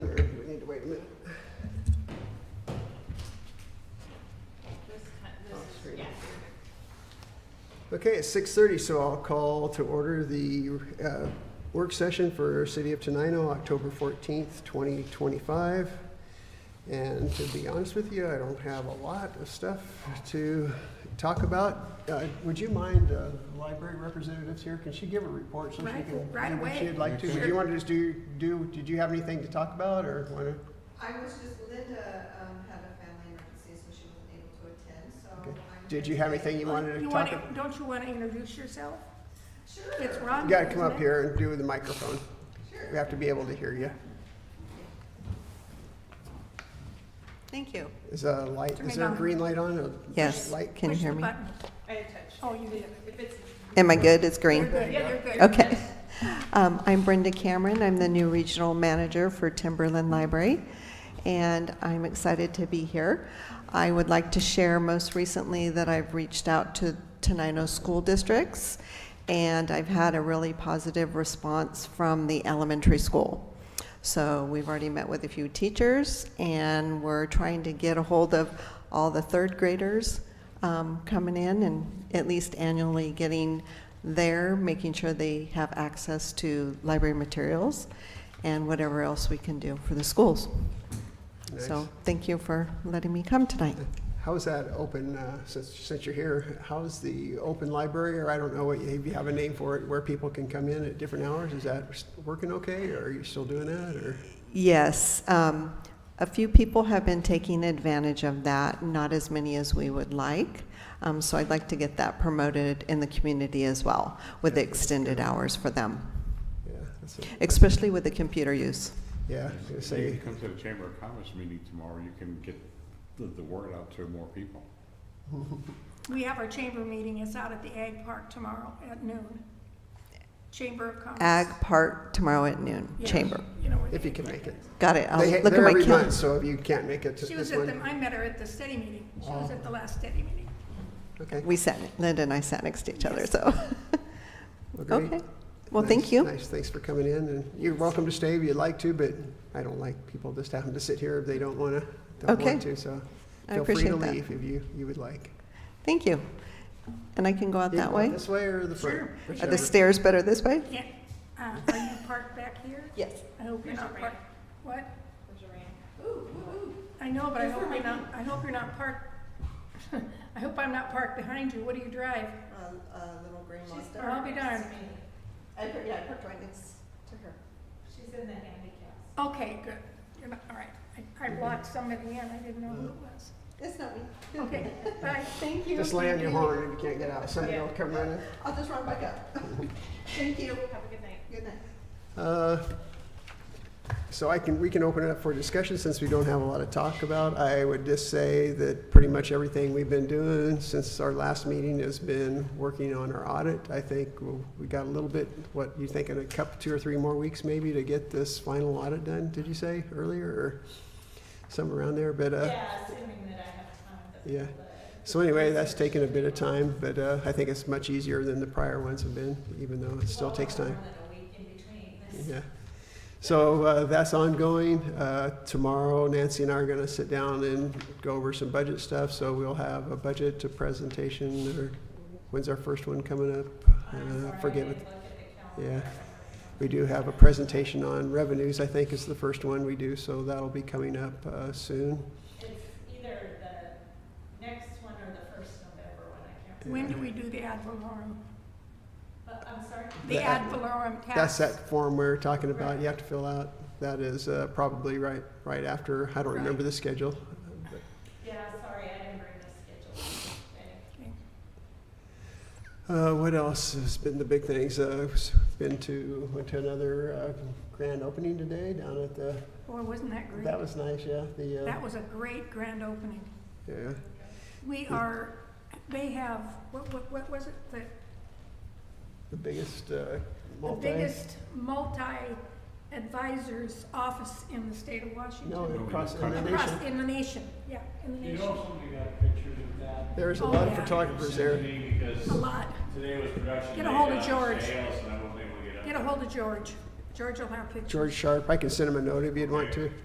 Okay, it's six thirty, so I'll call to order the uh, work session for City of Tenino, October fourteenth, twenty twenty-five. And to be honest with you, I don't have a lot of stuff to talk about. Uh, Would you mind, uh, library representatives here, can she give a report so she Right- can? right do what away. She'd like to, would you want to just do, do, did you have anything to talk about or want to? I was just, Linda um, had a family emergency, so she wasn't able to attend, so Okay. I'm. Did you have anything you wanted to You talk wanna- about? Don't you want to introduce yourself? Sure. It's Rhonda. You gotta come isn't up it? here and do the microphone. We Sure. have to be able to hear you. Thank you. Is a light, Turn is it there a on. green light on? a Yes, Light? can you Push the hear me? button. I had touched. Oh, you did. Am I good? It's You're green? good, yeah, you're good. Okay. Um, I'm Brenda Cameron. I'm the new regional manager for Timberland Library, and I'm excited to be here. I would like to share most recently that I've reached out to Tenino school districts, and I've had a really positive response from the elementary school. So we've already met with a few teachers, and we're trying to get a hold of all the third graders um, coming in and at least annually getting there, making sure they have access to library materials and whatever else we can do for the schools. Nice. So thank you for letting me come tonight. How's that open, uh, since, since you're here, how's the open library, or I don't know, what you- if you have a name for it, where people can come in at different hours? Is that s- working okay, or are you still doing that, or? Yes, um, a few people have been taking advantage of that, not as many as we would like. Um, So I'd like to get that promoted in the community as well, with the extended hours for them, Yeah, that's a- especially with the computer use. yeah, I was gonna say, If you come to the Chamber of Commerce meeting tomorrow, you can get the, the word out to more people. We have our chamber meeting, it's out at the Ag Park tomorrow at noon. Chamber of Commerce. Ag Park tomorrow at noon, Yes, chamber. you know where if the you Ag can Park make it. is. Got it. I'll They ha- look at They're my every calendar. month, so if you can't make it to She was this at the, one, I met her at the city meeting, she was at the last city meeting. okay. We sat, Linda and I sat next to each other, so, well, great. okay. Well, Nice, thank you. Nice, thanks for coming in, and you're welcome to stay if you'd like to, but I don't like people just having to sit here if they don't wanna, don't Okay. want to, so. I Feel appreciate free to that. leave if you, you would like. Thank you. And I can go out You that go way? This way or the front? Sure. Are Whichever. the stairs better this way? Yeah, uh, are you parked back here? Yes. I hope you're not parked, what? There's a rain. Ooh, ooh, ooh. I know, but I hope you're not, I hope you're not parked, I hope I'm not parked behind you, what do you drive? A, a little green She's monster. I'll be darned. I, per- yeah, I parked right next to her. She's in the handicap. Okay, good. You're not, all right. I, I blocked somebody in, I didn't know who it was. It's not me. Okay, bye, thank you. Just lay on your horn if you can't get out, somebody will come running. I'll just run back up. Thank you. Have a good night. Good night. Uh, So I can, we can open it up for discussion since we don't have a lot to talk about. I would just say that pretty much everything we've been doing since our last meeting has been working on our audit. I think we'll- we got a little bit, what, you think in a couple, two or three more weeks maybe to get this final audit done, did you say earlier? Or somewhere around there, but, uh, Yeah, assuming that I have time. but- Yeah. but- So anyway, that's taken a bit of time, but uh, I think it's much easier than the prior ones have been, even though it still Well, takes more time. than a week in between. This- Yeah. So uh, that's ongoing. Uh, Tomorrow Nancy and I are going to sit down and go over some budget stuff, so we'll have a budget to presentation, or when's our first one coming up? I'm sorry, Uh, I Forget didn't it. look at the calendar. Yeah. We do have a presentation on revenues, I think is the first one we do, so that'll be coming up uh, soon. It's either the next one or the first November one, I can't When remember. do we do the ad valorem? But I'm sorry, The The ad ad- valorem tax? That's that form we were talking about, you have to fill out. That is uh, probably right, right after, I don't remember the schedule. yeah, sorry, I didn't bring the schedule. Okay. Okay. Uh, What else has been the big things? Uh, s- Been to, went to another uh, grand opening today down at the, Boy, wasn't that great? that was nice, yeah, the, uh, That was a great grand opening. yeah. We are, they have, what, what, what was it? The The biggest uh, the multi. biggest multi-advisor's office in the state of No, Washington. across the Country. nation. Across, in the nation, yeah, in the You nation, know somebody got pictures of that? There's a Oh, lot of yeah. photographers there. Today Because a lot. today was production day Get a hold of on George. sales, and I wasn't able to get up. Get a hold of George. George will have pictures. George Sharp, I can send him a note if you'd want to.